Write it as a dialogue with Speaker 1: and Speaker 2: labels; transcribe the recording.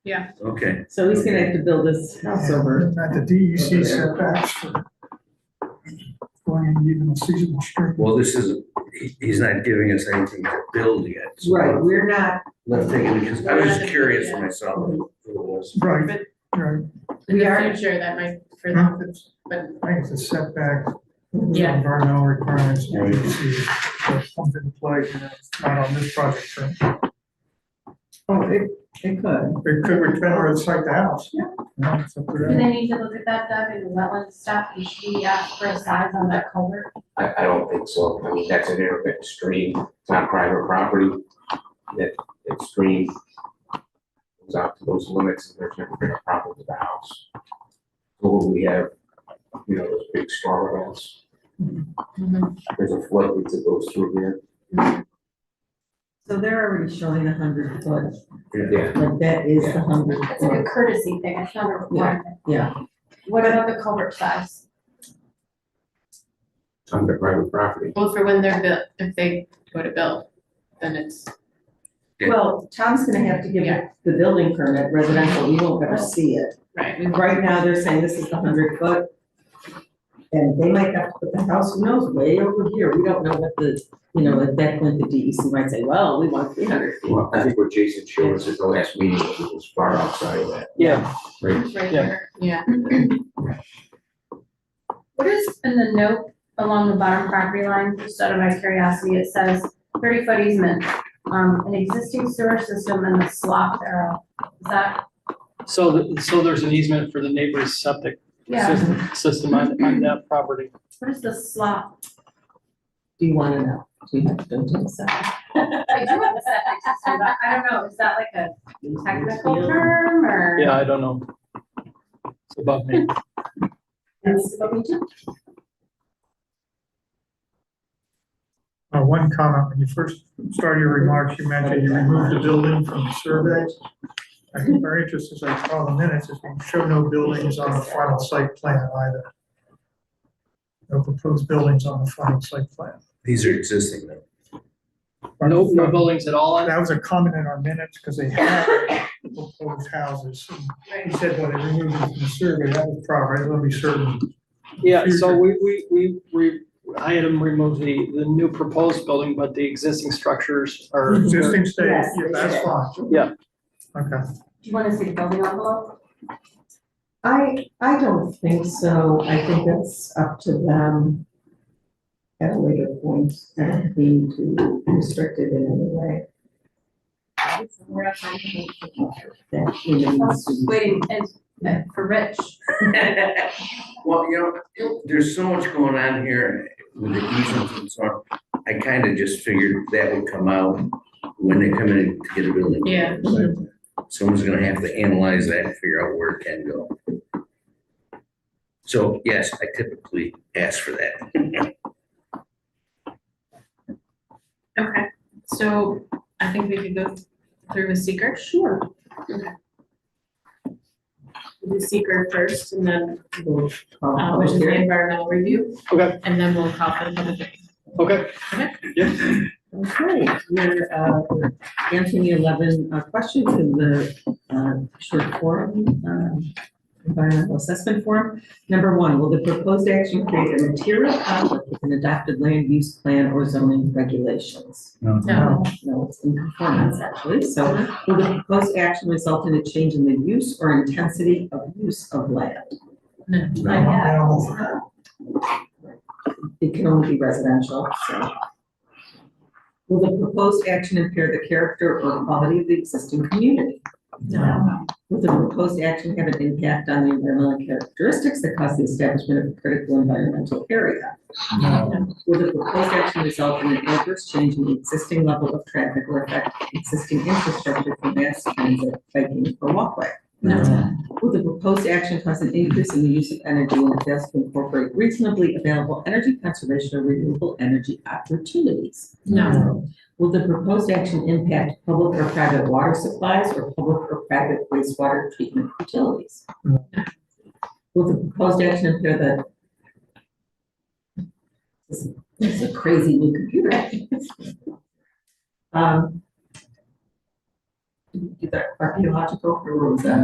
Speaker 1: Yeah.
Speaker 2: Okay,
Speaker 3: So he's gonna have to build his house over.
Speaker 4: Not the E DEC setbacks for going in even a seasonal strip.
Speaker 2: well, this isn't, he, he's not giving us anything to build yet. so
Speaker 3: Right, we're not,
Speaker 2: Not thinking, because I was just curious for myself. what it was.
Speaker 4: Right,
Speaker 1: But
Speaker 4: right.
Speaker 1: in
Speaker 3: We
Speaker 1: the
Speaker 3: are-
Speaker 1: future, that might, for
Speaker 4: Huh?
Speaker 1: them, but
Speaker 4: I think the setback,
Speaker 1: Yeah.
Speaker 4: environmental requirements,
Speaker 2: Right.
Speaker 4: DEC, comes into play, you know, it's not on this project. so
Speaker 3: oh, it, it could.
Speaker 4: It could return or it's like the house.
Speaker 3: Yeah.
Speaker 4: Yeah, it's up to
Speaker 5: Do
Speaker 4: them.
Speaker 5: they need to look at that, Doug, and wetland stuff, and she asked for a size on that culvert?
Speaker 6: I, I don't think so. I mean, that's an irrigate stream. It's not private property. That, that stream goes out to those limits and there's never been a problem with the house. So when we have, you know, those big storm events. There's a flood that goes through here.
Speaker 3: So they're already showing a hundred foot,
Speaker 6: Yeah.
Speaker 3: like that is the hundred
Speaker 5: It's like
Speaker 3: foot,
Speaker 5: a courtesy thing, it's not a requirement.
Speaker 3: yeah.
Speaker 5: What about the culvert size?
Speaker 6: It's under private property.
Speaker 1: both for when they're built, if they go to build, then it's,
Speaker 2: Yeah.
Speaker 3: Well, Tom's gonna have to give
Speaker 1: Yeah.
Speaker 3: the building permit residential, we won't ever see it.
Speaker 1: right, we-
Speaker 3: Right now, they're saying this is the hundred foot. And they might have to put the house, who knows, way over here, we don't know what the, you know, at that point, the DEC might say, well, we want three hundred feet.
Speaker 6: Well, I think what Jason showed us at the last meeting was far outside of that.
Speaker 7: Yeah,
Speaker 6: Right.
Speaker 5: Right there.
Speaker 1: yeah.
Speaker 5: What is in the note along the bottom property line, just out of my curiosity, it says thirty foot easement, um, an existing sewer system and a slop arrow. Is that,
Speaker 7: so, th- so there's an easement for the neighbor's septic
Speaker 5: yeah,
Speaker 7: system- system on, on that property.
Speaker 5: what is the slop?
Speaker 3: Do you wanna know? Do you have to go to the side?
Speaker 5: I do have a septic system, but I don't know, is that like a technical term or?
Speaker 7: Yeah, I don't know. It's above me.
Speaker 5: That's what we do.
Speaker 4: Uh, one comment, when you first started your remarks, you mentioned you removed the building from the survey. I think our interest, as I saw the minutes, is we show no buildings on the final site plan either. No proposed buildings on the final site plan.
Speaker 2: These are existing though.
Speaker 7: No, no buildings at all on
Speaker 4: That was a comment in our minutes, because they had proposed houses. He said, well, they removed it from the survey, that was proper, I want to be certain.
Speaker 7: Yeah, so
Speaker 4: Future.
Speaker 7: we, we, we, we, I had them remove the, the new proposed building, but the existing structures are.
Speaker 4: Existing state,
Speaker 5: Yes,
Speaker 4: yeah, that's fine.
Speaker 7: Yeah.
Speaker 4: Okay.
Speaker 5: Do you wanna see the building envelope?
Speaker 3: I, I don't think so, I think that's up to them at a later point, I don't think to restrict it in any way,
Speaker 5: We're not trying to make it.
Speaker 3: that remains to be
Speaker 5: Waiting, and, and for Rich,
Speaker 2: Well, you know, there's so much going on here with the easements and so on. I kind of just figured that would come out when they come in to get a building.
Speaker 1: Yeah.
Speaker 2: Someone's gonna have to analyze that and figure out where it can go. So yes, I typically ask for that.
Speaker 1: Okay, so I think we could go through with seeker. Sure. Okay. The seeker first and then,
Speaker 3: able to call
Speaker 1: uh, which is the
Speaker 3: here.
Speaker 1: environmental review.
Speaker 7: Oh, Okay.
Speaker 1: And then we'll call for the public hearing.
Speaker 7: Okay,
Speaker 3: Okay, we're, uh, we're answering the eleven, uh, questions in the, uh, short form, um, environmental assessment form. Number one, will the proposed action create a material conflict with an adopted land use plan or zoning regulations?
Speaker 1: No,
Speaker 3: No, it's in conformance actually, so will the proposed action result in a change in the use or intensity of use of land?
Speaker 5: Like that.
Speaker 4: Animal.
Speaker 3: It can only be residential, so. Will the proposed action impair the character or quality of the existing community?
Speaker 5: No.
Speaker 3: Will the proposed action have an impact on the environmental characteristics that cause the establishment of a critical environmental area? Will the proposed action result in an adverse change in the existing level of traffic or affect existing infrastructure for mass transit, biking, or walkway?
Speaker 1: no,
Speaker 3: Will the proposed action cause an increase in the use of energy and it fails to incorporate reasonably available energy conservation or renewable energy opportunities?
Speaker 1: no,
Speaker 3: Will the proposed action impact public or private water supplies or public or private wastewater treatment utilities?
Speaker 4: No.
Speaker 3: Will the proposed action impair the? This is- this is a crazy new computer. Um, Did you do that archaeological, or what was that?